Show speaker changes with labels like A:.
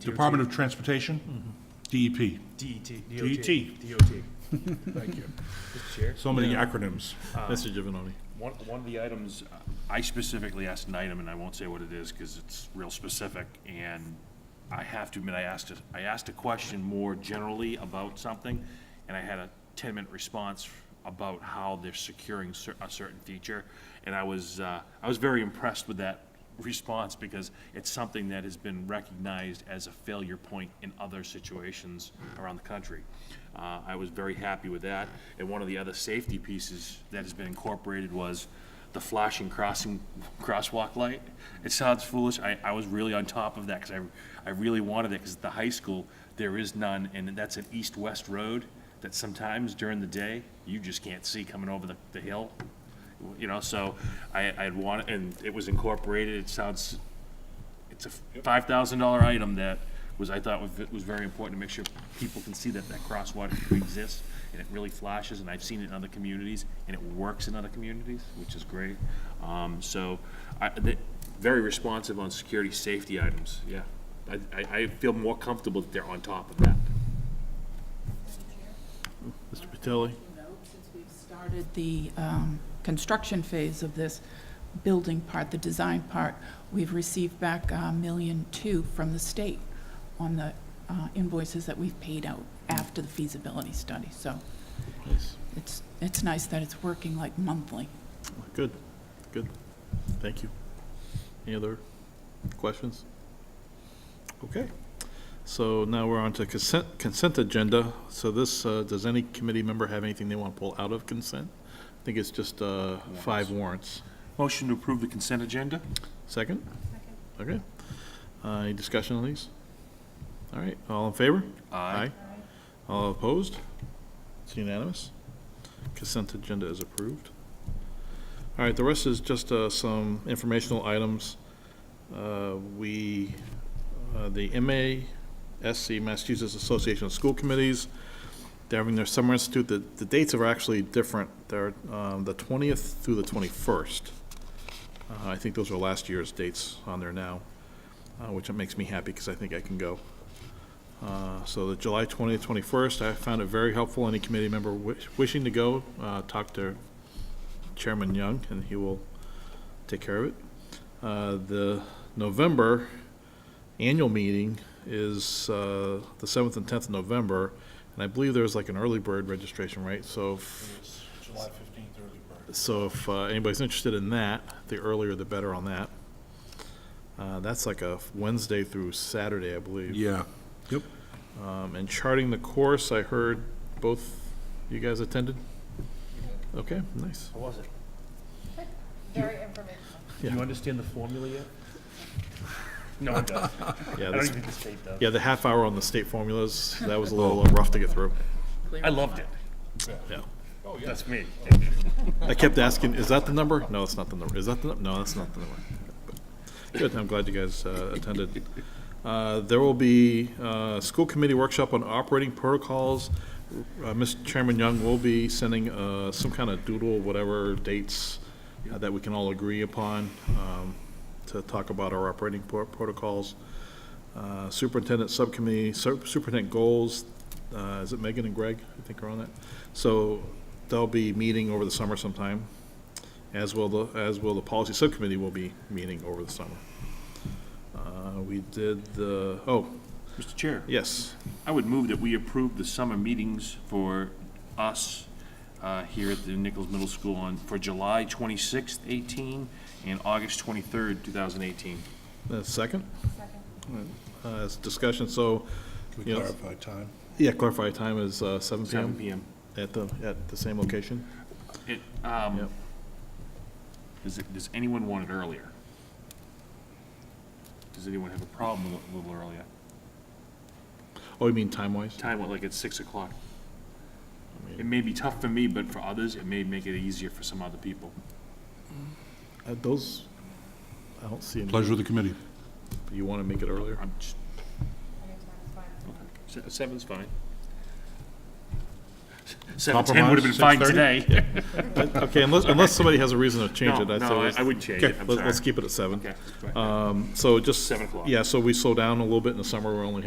A: Department of Transportation, E DEP.
B: DET.
A: DET.
B: DOT. Thank you. Mr. Chair?
A: So many acronyms.
C: Mr. Giovanni.
D: One, one of the items, uh, I specifically asked an item, and I won't say what it is, because it's real specific, and I have to admit, I asked, it- I asked a question more generally about something, and I had a ten-minute response about how they're securing cer- a certain feature, and I was, uh, I was very impressed with that response, because it's something that has been recognized as a failure point in other situations around the country. Uh, I was very happy with that. And one of the other safety pieces that has been incorporated was the flashing crossing, crosswalk light. It sounds foolish. I, I was really on top of that because I, I really wanted it because at the high school, there is none. And that's an east-west road that sometimes during the day, you just can't see coming over the, the hill. You know, so I, I'd want, and it was incorporated. It sounds it's a five thousand dollar item that was, I thought was, was very important to make sure people can see that that crosswalk exists and it really flashes, and I've seen it in other communities, and it works in other communities, which is great. Um, so, I, the, very responsive on security, safety items, yeah. I, I, I feel more comfortable that they're on top of that.
C: Mr. Patelli.
E: note, since we've started the um, construction phase of this building part, the design part, we've received back a million two from the state on the uh, invoices that we've paid out after the feasibility study. So it's, it's nice that it's working like monthly.
C: Good, good. Thank you. Any other questions? Okay. So now we're on to consent, consent agenda. So this, uh, does any committee member have anything they want to pull out of consent? I think it's just uh, five warrants.
D: Motion to approve the consent agenda?
C: Second? Second. Okay. Uh, Any discussion on these? All right, all in favor?
D: Aye.
C: All opposed? It's unanimous. Consent agenda is approved. All right, the rest is just uh, some informational items. Uh, We, uh, the MASC, Massachusetts Association of School Committees, they're having their summer institute. The, the dates are actually different. They're um, the 20th through the 21st. Uh, I think those are last year's dates on there now, uh, which makes me happy because I think I can go. Uh, So the July 20th, 21st, I found it very helpful. Any committee member wish- wishing to go, uh, talk to Chairman Young, and he will take care of it. Uh, The November annual meeting is uh, the 7th and 10th of November, and I believe there's like an early bird registration, right? So if
A: July 15th, early bird.
C: so if uh, anybody's interested in that, the earlier the better on that. Uh, That's like a Wednesday through Saturday, I believe.
A: Yeah. Yep.
C: Um, And charting the course, I heard both you guys attended? Okay, nice.
B: How was it?
F: Very informational.
B: Do you understand the formula yet? No, I don't.
C: Yeah,
B: I don't
C: this-
B: even think the state does.
C: yeah, the half hour on the state formulas, that was a little uh, rough to get through.
D: I loved it.
C: Yeah.
D: Oh,
B: That's me.
C: I kept asking, is that the number? No, that's not the number. Is that the, num- no, that's not the number. Good, I'm glad you guys uh, attended. Uh, There will be uh school committee workshop on operating protocols. Uh, Mr. Chairman Young will be sending uh, some kind of doodle, whatever dates uh, that we can all agree upon um, to talk about our operating pro- protocols. Uh, Superintendent Subcommittee, Sup- Superintendent Goals, uh, is it Megan and Greg, I think are on that? So they'll be meeting over the summer sometime, as will the, as will the Policy Subcommittee will be meeting over the summer. Uh, We did the, oh,
D: Mr. Chair?
C: yes,
D: I would move that we approve the summer meetings for us uh, here at the Nichols Middle School on, for July 26th, 18, and August 23rd, 2018.
C: the second,
F: Second.
C: uh, is discussion, so,
A: Can we
C: Yes.
A: clarify time?
C: yeah, clarify time is uh, seven
D: 7
C: PM
D: PM.
C: at the, at the same location?
D: It, um,
C: Yep.
D: Does it- does anyone want it earlier? Does anyone have a problem with it a little earlier?
C: Oh, you mean time-wise?
D: Time, what, like at 6 o'clock?
C: I mean-
D: It may be tough for me, but for others, it may make it easier for some other people.
C: Uh, Those, I don't see any.
A: Pleasure of the committee.
C: You want to make it earlier?
D: I'm just,
F: Anytime is fine.
D: okay. Se- Seven's fine. Seven ten would have been
A: Compromise,
D: fine
A: 6:30?
D: today.
C: Okay, unless, unless somebody has a reason to change
D: No,
C: it, I'd say.
D: no, I-
C: let's-
D: I wouldn't change it,
C: Okay,
D: I'm
C: let's- Let's
D: sorry.
C: keep it at seven.
D: Okay.
C: Um, so just.
D: Seven o'clock.
C: Yeah, so we slow down a little bit in the summer, we're only